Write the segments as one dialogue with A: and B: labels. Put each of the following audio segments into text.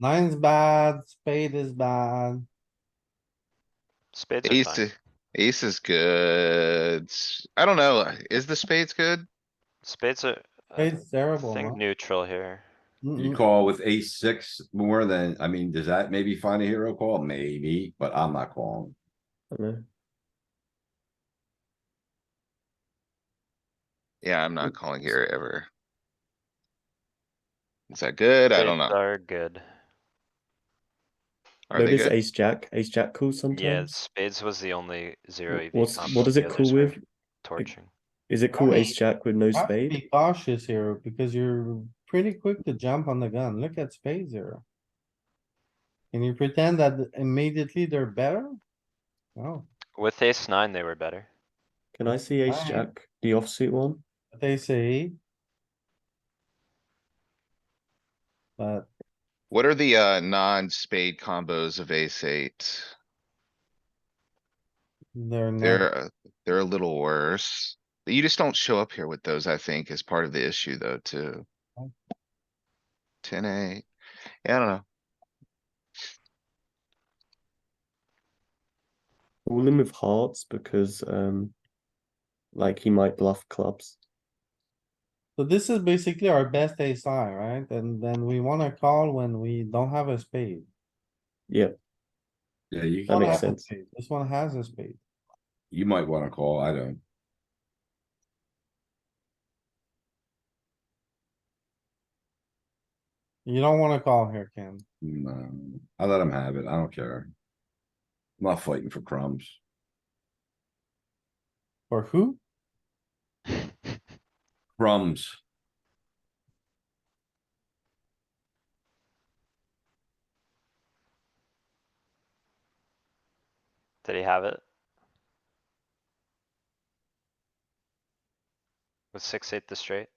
A: Nine's bad, spade is bad.
B: Spades are
C: Ace,
B: fine.
C: ace is good. I don't know. Is the spades good?
B: Spades are. uh,
A: Spade's terrible, huh?
B: Think neutral here.
D: You
A: Mm-mm.
D: call with ace six more than, I mean, does that maybe find a hero call? Maybe, but I'm not calling.
C: Yeah, I'm not calling here ever. Is that good? I don't
B: Spades
C: know.
B: Are good.
C: Are they
E: Maybe it's
C: good?
E: ace jack, ace jack cool
B: Yeah,
E: sometimes.
B: spades was the only zero EV.
E: What's,
B: combo,
E: what does
B: the
E: it
B: others
E: cool
B: were
E: with?
B: Torching.
E: Is it cool
A: Why-
E: ace jack with no
A: You have to
E: spade?
A: Be cautious here because you're pretty quick to jump on the gun. Look at spades here. Can you pretend that immediately they're better? No,
B: With ace nine, they were better.
E: Can I see ace
A: Why?
E: jack, the offsuit one?
A: but they say. But
C: What are the, uh, non-spade combos of ace eight?
A: they're not,
C: They're, uh, they're a little worse. You just don't show up here with those, I think, is part of the issue though, too.
E: Oh.
C: Ten eight. Yeah, I don't know.
E: All in with hearts because, um, like he might bluff clubs.
A: so this is basically our best ace high, right? And then we wanna call when we don't have a spade.
E: Yeah,
D: Yeah, you,
E: That
A: Don't
E: makes
A: have a
E: sense.
A: spade. This one has a spade.
D: you might wanna call, I don't.
A: You don't wanna call here, Ken.
D: No, mm, uh, I let him have it. I don't care. I'm not fighting for crumbs.
A: For who?
D: Crumbs.
B: Did he have it? With six, eight the straight?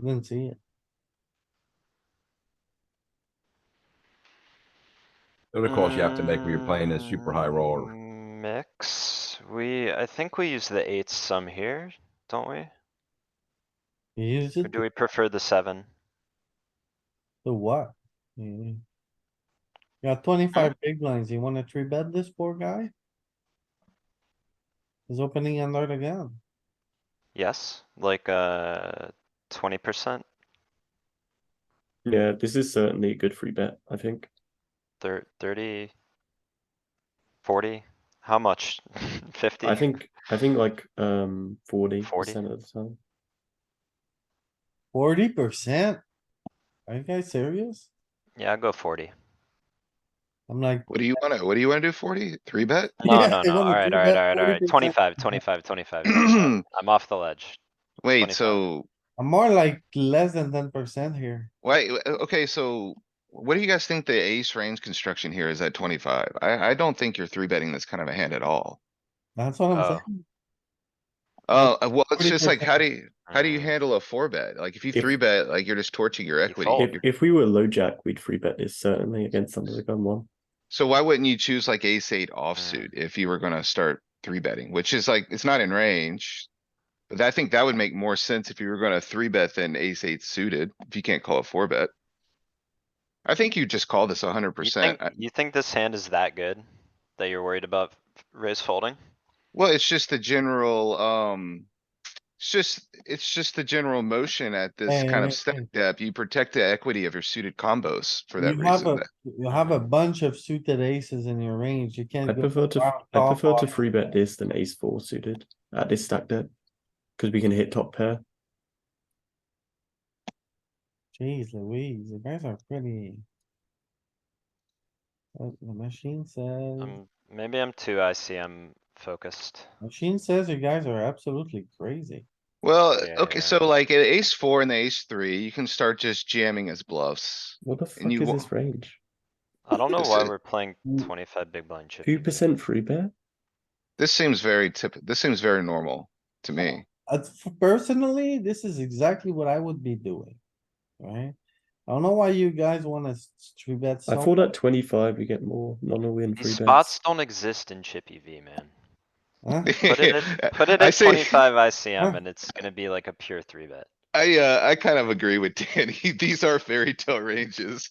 A: Didn't see it.
D: The other calls you have to make when you're playing a super high roller.
B: Mm, Mix, we, I think we use the eights some here, don't we?
A: You used
B: Or
A: it
B: do we prefer the seven?
A: to what? Mm. You got
C: Uh.
A: twenty-five big blinds. You wanna three bet this poor guy? He's opening under the gun.
B: Yes, like, uh, twenty percent,
E: yeah, this is certainly a good free bet, I think.
B: thir- thirty? Forty? How much? Fifty?
E: I think, I think like, um, forty
B: 40?
E: percent of the time.
A: Forty percent? Are you guys serious?
B: Yeah, I'd go forty.
A: I'm like,
C: What do you wanna, what do you wanna do? Forty? Three bet?
B: No,
A: Yeah,
B: no,
A: they
B: no,
A: wanna
B: alright,
A: do
B: alright,
A: that
B: alright, alright,
A: 40%.
B: twenty-five, twenty-five, twenty-five. 25. I'm off the ledge.
C: Wait,
B: 25.
C: so
A: I'm more like less than ten percent here.
C: Wait, w- uh, okay, so what do you guys think the ace range construction here is at twenty-five? I, I don't think you're three betting this kind of a hand at all.
A: That's what I'm
B: Oh.
A: saying.
C: Uh, uh, well, it's just like, how
A: 40%.
C: do you, how do you
B: Mm.
C: handle a four bet? Like, if you
E: If-
C: three bet, like, you're just torching your equity.
B: fold.
E: If,
C: You're-
E: if we were low jack, we'd free bet this certainly against under the gun one.
C: So why wouldn't you choose like ace eight offsuit
B: Mm.
C: if you were gonna start three betting, which is like, it's not in range? But I think that would make more sense if you were gonna three bet than ace eight suited, if you can't call a four bet. I think you just call this a hundred
B: You
C: percent.
B: think, you think this hand is that good? That you're worried about f- raise folding?
C: Well, it's just the general, um, it's just, it's just the general motion at this
A: Yeah,
C: kind of
A: yeah,
C: step
A: yeah.
C: depth. You protect the equity of your suited combos for that
A: You have
C: reason.
A: a,
C: That-
A: you have a bunch of suited aces in your range. You can't.
E: I
A: go
E: prefer to,
A: wild
E: I
A: off
E: prefer to
A: off.
E: free bet this than ace four suited at this stack depth. Cause we can hit top pair.
A: Jeez Louise, you guys are pretty. Uh, The machine says,
B: Um, maybe I'm too ICM focused.
A: machine says you guys are absolutely crazy.
C: Well,
B: Yeah,
C: okay,
B: yeah.
C: so like at ace four and the ace three, you can start just jamming as bluffs.
E: What the fuck
C: you
E: is
C: wa-
E: this range?
B: I don't know
C: This
B: why
C: is-
B: we're playing
A: Mm.
B: twenty-five big blind E chippy.
E: Two percent free bet?
C: This seems very tip, this seems very normal to me.
A: Uh, f- personally, this is exactly what I would be doing, right? I don't know why you guys wanna s- s- three bet
E: I
A: so.
E: thought at twenty-five we get more non-all in free
B: These
E: bets.
B: spots don't exist in chippy V, man.
A: huh?
B: Put it at, put it
C: I
B: at
C: say-
B: twenty-five
A: Huh?
B: ICM and it's gonna be like a pure three bet.
C: I, uh, I kind of agree with Danny. These are fairy tale ranges.